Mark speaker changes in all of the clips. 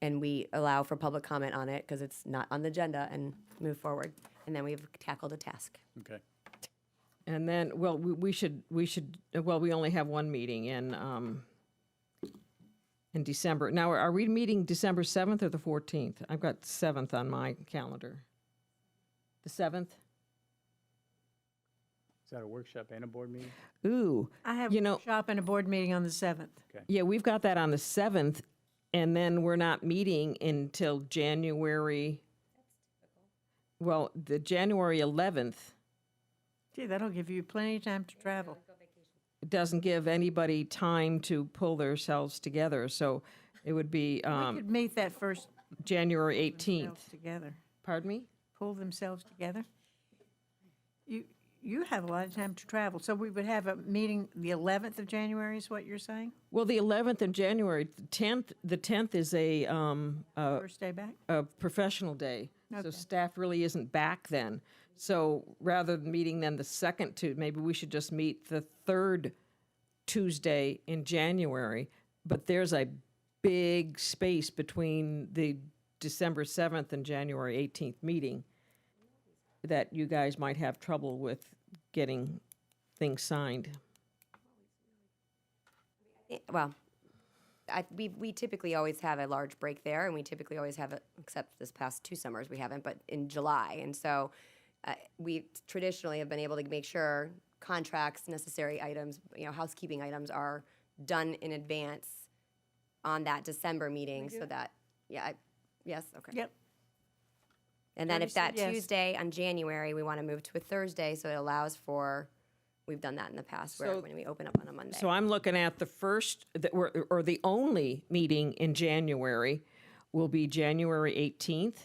Speaker 1: and we allow for public comment on it because it's not on the agenda and move forward. And then we've tackled a task.
Speaker 2: Okay.
Speaker 3: And then, well, we, we should, we should, well, we only have one meeting in, um, in December. Now, are we meeting December 7th or the 14th? I've got 7th on my calendar. The 7th?
Speaker 2: Is that a workshop and a board meeting?
Speaker 3: Ooh.
Speaker 4: I have
Speaker 3: You know-
Speaker 4: a shop and a board meeting on the 7th.
Speaker 3: Yeah, we've got that on the 7th, and then we're not meeting until January. Well, the January 11th
Speaker 4: Gee, that'll give you plenty of time to travel.
Speaker 3: doesn't give anybody time to pull themselves together, so it would be
Speaker 4: We
Speaker 3: um,
Speaker 4: could meet that first
Speaker 3: January 18th.
Speaker 4: themselves together,
Speaker 3: Pardon me?
Speaker 4: pull themselves together. You, you have a lot of time to travel, so we would have a meeting the 11th of January is what you're saying?
Speaker 3: Well, the 11th of January, the 10th, the 10th is a, um, a,
Speaker 4: First day back?
Speaker 3: a professional day. So
Speaker 4: Okay.
Speaker 3: staff really isn't back then. So rather than meeting then the second Tu, maybe we should just meet the third Tuesday in January. But there's a big space between the December 7th and January 18th meeting that you guys might have trouble with getting things signed.
Speaker 1: I- Well, I, we, we typically always have a large break there, and we typically always have, it. except this past two summers, we haven't, but in July. And so uh, we traditionally have been able to make sure contracts, necessary items, you know, housekeeping items are done in advance on that December meeting so that, yeah, I, yes, okay.
Speaker 4: Yep.
Speaker 1: And then
Speaker 4: Debbie
Speaker 1: if
Speaker 4: said
Speaker 1: that
Speaker 4: yes.
Speaker 1: Tuesday on January, we want to move to a Thursday, so it allows for, we've done that in the past where
Speaker 3: So-
Speaker 1: when we open up on a Monday.
Speaker 3: So I'm looking at the first, that we're- or the only meeting in January will be January 18th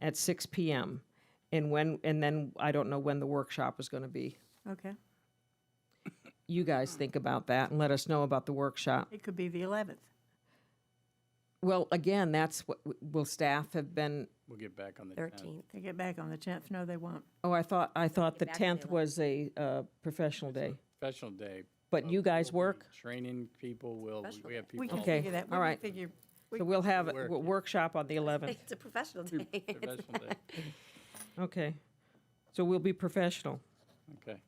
Speaker 3: at 6 PM. And when, and then I don't know when the workshop is going to be.
Speaker 4: Okay.
Speaker 3: You guys think about that and let us know about the workshop.
Speaker 4: It could be the 11th.
Speaker 3: Well, again, that's what, will staff have been,
Speaker 2: We'll get back on the. 10th.
Speaker 1: Thirteenth.
Speaker 4: They get back on the 10th. No, they won't.
Speaker 3: oh, I thought, I thought the
Speaker 1: back to
Speaker 3: 10th was a uh, professional day.
Speaker 2: Professional day.
Speaker 3: But you guys
Speaker 2: we'll be
Speaker 3: work?
Speaker 2: Training people, will, we have people.
Speaker 4: We can
Speaker 2: all
Speaker 3: Okay,
Speaker 4: figure that. We
Speaker 3: all
Speaker 4: can
Speaker 3: right.
Speaker 4: Figure, we-
Speaker 3: So we'll have a
Speaker 2: Work.
Speaker 3: w- workshop on the 11th.
Speaker 1: It's a professional
Speaker 2: through
Speaker 1: day.
Speaker 2: Professional day,
Speaker 3: Okay. So we'll be professional.
Speaker 2: okay.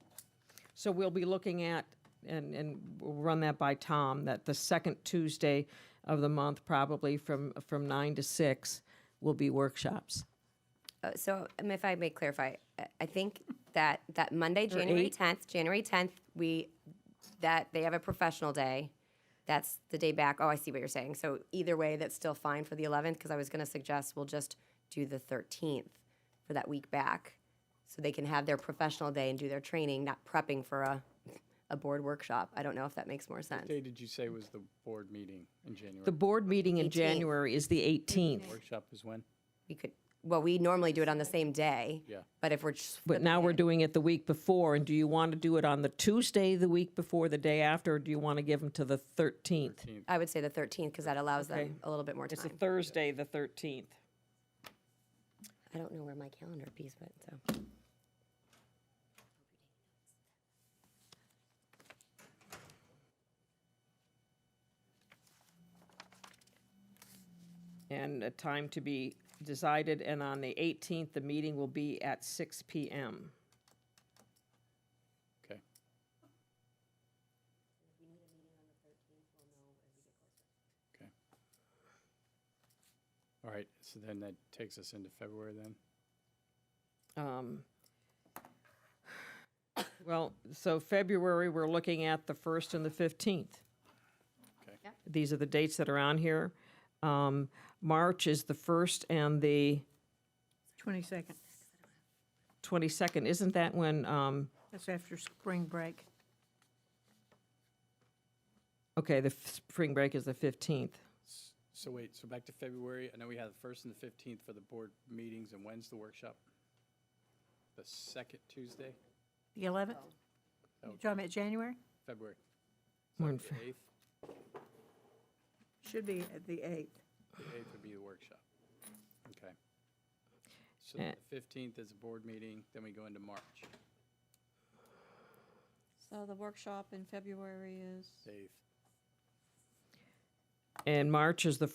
Speaker 3: So we'll be looking at, and, and we'll run that by Tom, that the second Tuesday of the month, probably from, from nine to six, will be workshops.
Speaker 1: Uh, So um, if I may clarify, I- I think that, that Monday, January
Speaker 3: eight.
Speaker 1: tenth, January tenth, we, that, they have a professional day. That's the day back. Oh, I see what you're saying. So either way, that's still fine for the eleventh, because I was gonna suggest we'll just do the thirteenth for that week back. So they can have their professional day and do their training, not prepping for a, a board workshop. I don't know if that makes more sense.
Speaker 2: Day did you say was the board meeting in January?
Speaker 3: The board meeting in
Speaker 1: 18th.
Speaker 3: January is the 18th,
Speaker 2: Workshop is when?
Speaker 1: We could, well, we normally do it on the same day.
Speaker 2: Yeah.
Speaker 1: But if we're just
Speaker 3: but now we're doing it the week before. And do you want to do it on the Tuesday, the week before, the day after, or do you want to give them to the 13th?
Speaker 1: I would say the 13th because that allows
Speaker 3: Okay.
Speaker 1: them a little bit more
Speaker 3: It's a
Speaker 1: time.
Speaker 3: Thursday, the 13th.
Speaker 1: I don't know where my calendar piece went, so.
Speaker 3: And a time to be decided. And on the 18th, the meeting will be at six PM.
Speaker 2: Okay. Okay. All right, so then that takes us into February then?
Speaker 3: Um, Well, so February, we're looking at the 1st and the 15th.
Speaker 2: Okay.
Speaker 3: These are the dates that are on here. Um, March is the 1st and the
Speaker 4: 22nd.
Speaker 3: 22nd. Isn't that when, um,
Speaker 4: That's after spring break.
Speaker 3: okay, the f- spring break is the 15th.
Speaker 2: So wait, so back to February, I know we have the first and the fifteenth for the board meetings, and when's the workshop? The second Tuesday,
Speaker 4: The 11th?
Speaker 2: Oh.
Speaker 4: You talking about January?
Speaker 2: February,
Speaker 3: We're in
Speaker 2: the
Speaker 3: Fe-
Speaker 2: eighth,
Speaker 4: Should be at the 8th.
Speaker 2: the eighth would be the workshop. Okay. So
Speaker 3: Eh.
Speaker 2: the fifteenth is a board meeting, then we go into March,
Speaker 5: So the workshop in February is?
Speaker 2: the eighth.
Speaker 3: And March is the